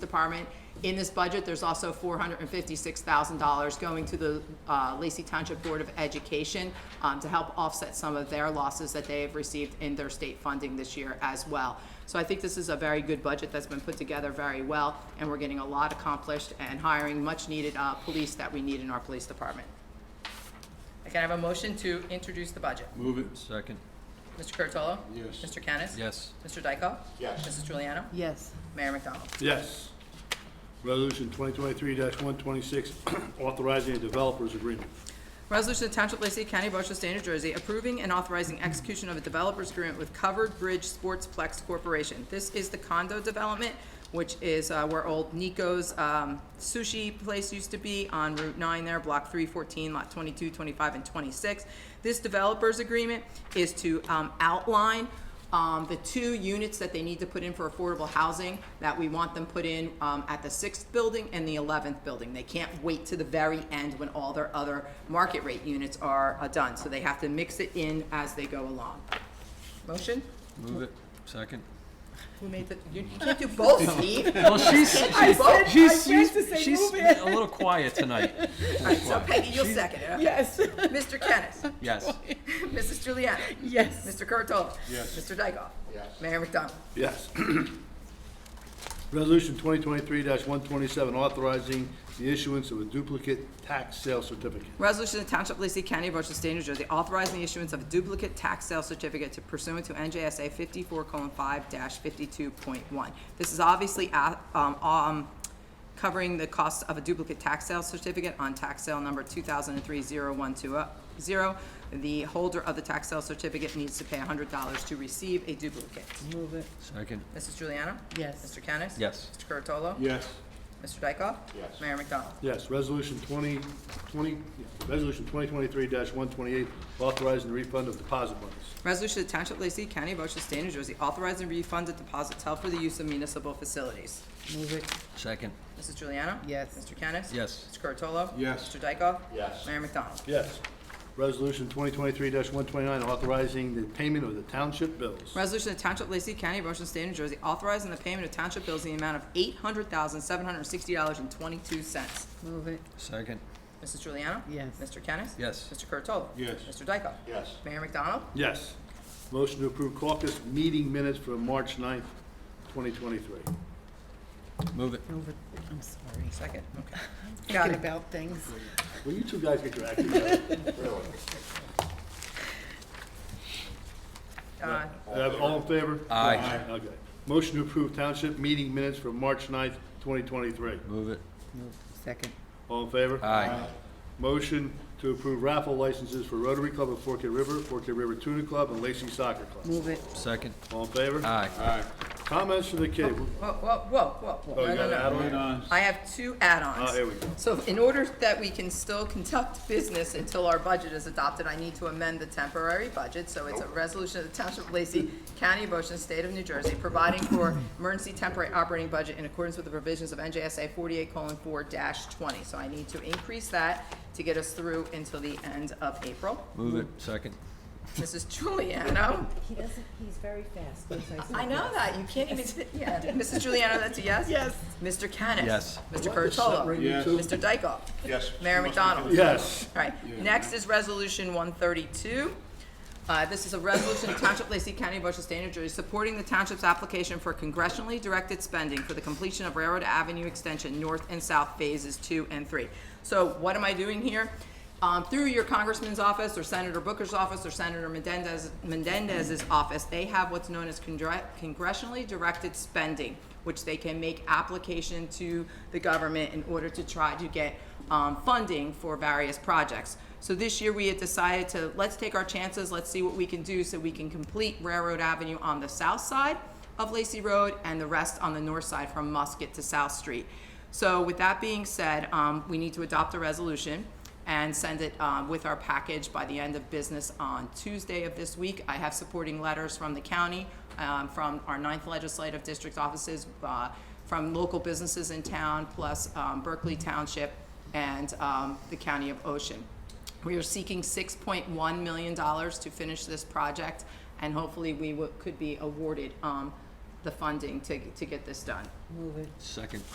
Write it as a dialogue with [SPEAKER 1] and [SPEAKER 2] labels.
[SPEAKER 1] Department. In this budget, there's also four hundred and fifty-six thousand dollars going to the uh, Lacey Township Board of Education um, to help offset some of their losses that they have received in their state funding this year as well. So I think this is a very good budget that's been put together very well, and we're getting a lot accomplished and hiring much-needed uh, police that we need in our police department. I can I have a motion to introduce the budget.
[SPEAKER 2] Move it.
[SPEAKER 3] Second,
[SPEAKER 1] Mr. Curtolo.
[SPEAKER 2] Yes.
[SPEAKER 1] Mr. Kennis?
[SPEAKER 3] yes.
[SPEAKER 1] Mr. Dykoff?
[SPEAKER 2] Yes.
[SPEAKER 1] Mrs. Juliana?
[SPEAKER 4] yes,
[SPEAKER 1] Mayor McDonald?
[SPEAKER 2] Yes. Resolution 2023-126, authorizing a developers agreement.
[SPEAKER 1] Resolution to Township of Lacey County, Ocean State, New Jersey, approving and authorizing execution of a developer's agreement with Covered Bridge Sportsplex Corporation. This is the condo development, which is uh, where old Nico's um, sushi place used to be on Route 9 there, Block 314, Lot 22, 25, and 26. This developer's agreement is to um, outline um, the two units that they need to put in for affordable housing, that we want them put in, um, at the sixth building and the eleventh building. They can't wait to the very end when all their other market rate units are, uh done, so they have to mix it in as they go along. Motion?
[SPEAKER 3] Move it. Second.
[SPEAKER 1] Who made the, you you can't do both, Steve.
[SPEAKER 3] Well, she's,
[SPEAKER 1] I said-
[SPEAKER 3] she's,
[SPEAKER 4] I meant
[SPEAKER 3] she's,
[SPEAKER 4] to say
[SPEAKER 3] she's
[SPEAKER 4] move
[SPEAKER 3] a little quiet tonight.
[SPEAKER 1] So Peggy, you'll second it.
[SPEAKER 4] yes,
[SPEAKER 1] Mr. Kennis?
[SPEAKER 3] Yes,
[SPEAKER 1] Mrs. Juliana?
[SPEAKER 4] yes,
[SPEAKER 1] Mr. Curtola.
[SPEAKER 2] Yes.
[SPEAKER 1] Mr. Dykoff? Yes. Mayor McDonald?
[SPEAKER 2] Yes. Resolution 2023-127, authorizing the issuance of a duplicate tax sale certificate.
[SPEAKER 1] Resolution of Township of Lacey County, Ocean State, New Jersey, authorizing the issuance of a duplicate tax sale certificate to pursuant to NJSA fifty-four five fifty-two point one. This is obviously, uh, um, um, covering the cost of a duplicate tax sale certificate on tax sale number two thousand and three zero one two zero. The holder of the tax sale certificate needs to pay hundred dollars to receive a duplicate.
[SPEAKER 4] move it,
[SPEAKER 3] second,
[SPEAKER 1] Mrs. Juliana?
[SPEAKER 4] yes,
[SPEAKER 1] Mr. Kennis?
[SPEAKER 3] yes.
[SPEAKER 1] Mr. Curatolo?
[SPEAKER 2] Yes.
[SPEAKER 1] Mr. Dykoff?
[SPEAKER 2] Yes.
[SPEAKER 1] Mayor McDonald?
[SPEAKER 2] Yes, resolution 20, 20, yeah, resolution 2023-128, authorizing the refund of deposit monies.
[SPEAKER 1] Resolution to Township of Lacey County, Ocean State, New Jersey, authorizing refund of deposits held for the use of municipal facilities.
[SPEAKER 4] move it,
[SPEAKER 3] Second,
[SPEAKER 1] Mrs. Juliana?
[SPEAKER 4] Yes.
[SPEAKER 1] Mr. Kennis?
[SPEAKER 3] Yes.
[SPEAKER 1] Mr. Curatolo?
[SPEAKER 2] Yes.
[SPEAKER 1] Mr. Dykoff?
[SPEAKER 2] Yes.
[SPEAKER 1] Mayor McDonald?
[SPEAKER 2] Yes. Resolution 2023-129, authorizing the payment of the township bills.
[SPEAKER 1] Resolution to Township of Lacey County, Ocean State, New Jersey, authorizing the payment of township bills in the amount of eight hundred thousand, seven hundred and sixty dollars and twenty-two cents.
[SPEAKER 4] move it,
[SPEAKER 3] second,
[SPEAKER 1] Mrs. Juliana?
[SPEAKER 4] Yes.
[SPEAKER 1] Mr. Kennis?
[SPEAKER 3] Yes.
[SPEAKER 1] Mr. Curatolo?
[SPEAKER 2] Yes.
[SPEAKER 1] Mr. Dykoff?
[SPEAKER 2] Yes.
[SPEAKER 1] Mayor McDonald?
[SPEAKER 2] Yes. Motion to approve caucus meeting minutes for March 9th, 2023.
[SPEAKER 3] move it.
[SPEAKER 4] move it, I'm sorry.
[SPEAKER 1] Second, okay. Got
[SPEAKER 4] Thinking
[SPEAKER 1] it.
[SPEAKER 4] about things,
[SPEAKER 2] Will you two guys get your act together?
[SPEAKER 1] Uh,
[SPEAKER 2] Uh, All in favor?
[SPEAKER 3] Aye.
[SPEAKER 2] Okay. Motion to approve township meeting minutes for March 9th, 2023.
[SPEAKER 3] Move it.
[SPEAKER 4] move, second,
[SPEAKER 2] All in favor?
[SPEAKER 3] Aye.
[SPEAKER 2] Motion to approve raffle licenses for Rotary Club of Forked River, Forked River Tuna Club, and Lacey Soccer Club.
[SPEAKER 4] move it,
[SPEAKER 3] Second,
[SPEAKER 2] All in favor?
[SPEAKER 3] aye.
[SPEAKER 2] Comments from the kid?
[SPEAKER 1] Whoa, whoa, whoa, whoa.
[SPEAKER 2] Oh,
[SPEAKER 1] No,
[SPEAKER 2] you
[SPEAKER 1] no,
[SPEAKER 2] got
[SPEAKER 1] no.
[SPEAKER 2] Adeline?
[SPEAKER 1] I have two add-ons.
[SPEAKER 2] Oh, here we go.
[SPEAKER 1] So in order that we can still conduct business until our budget is adopted, I need to amend the temporary budget. So it's a resolution of the Township of Lacey, County of Ocean, State of New Jersey, providing for emergency temporary operating budget in accordance with the provisions of NJSA forty-eight four twenty. So I need to increase that to get us through until the end of April.
[SPEAKER 3] Move it. Second,
[SPEAKER 1] Mrs. Juliano,
[SPEAKER 5] He doesn't, he's very fast.
[SPEAKER 1] I know that, you can't even, yeah. Mrs. Juliano, that's a yes?
[SPEAKER 4] Yes.
[SPEAKER 1] Mr. Kennis?
[SPEAKER 3] Yes.
[SPEAKER 1] Mr. Curatolo?
[SPEAKER 2] Yes.
[SPEAKER 1] Mr. Dykoff?
[SPEAKER 6] Yes.
[SPEAKER 1] Mayor McDonald?
[SPEAKER 2] Yes.
[SPEAKER 1] All right, next is Resolution 132. Uh, This is a resolution of Township of Lacey County, Ocean State, New Jersey, supporting the township's application for congressionally directed spending for the completion of Railroad Avenue Extension North and South Phases 2 and 3. So what am I doing here? Um, Through your congressman's office, or Senator Booker's office, or Senator Mendez- Mendez's office, they have what's known as congre- congressionally directed spending, which they can make application to the government in order to try to get um, funding for various projects. So this year, we had decided to, let's take our chances, let's see what we can do so we can complete Railroad Avenue on the south side of Lacey Road and the rest on the north side from Musket to South Street. So with that being said, um, we need to adopt a resolution and send it um, with our package by the end of business on Tuesday of this week. I have supporting letters from the county, um, from our ninth legislative district offices, uh, from local businesses in town, plus um, Berkeley Township and um, the County of Ocean. We are seeking $6.1 million to finish this project, and hopefully we wo- could be awarded um, the funding to to get this done.
[SPEAKER 4] move it.
[SPEAKER 3] second.